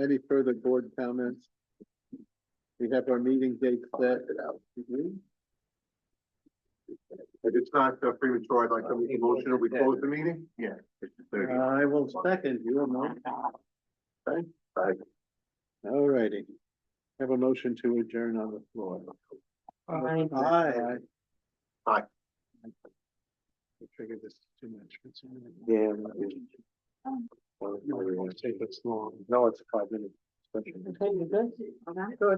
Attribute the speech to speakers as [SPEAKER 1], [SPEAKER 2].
[SPEAKER 1] Any further board comments? We have our meeting date set.
[SPEAKER 2] If it's not uh, premature, I'd like to make a motion that we close the meeting? Yeah.
[SPEAKER 1] I will second you, Mike. All righty. Have a motion to adjourn on the floor.
[SPEAKER 3] Aye.
[SPEAKER 1] Aye.
[SPEAKER 2] Aye.
[SPEAKER 1] I figured this is too much.
[SPEAKER 2] Yeah.
[SPEAKER 1] Well, I don't wanna take this long.
[SPEAKER 2] No, it's a five minute.
[SPEAKER 1] Go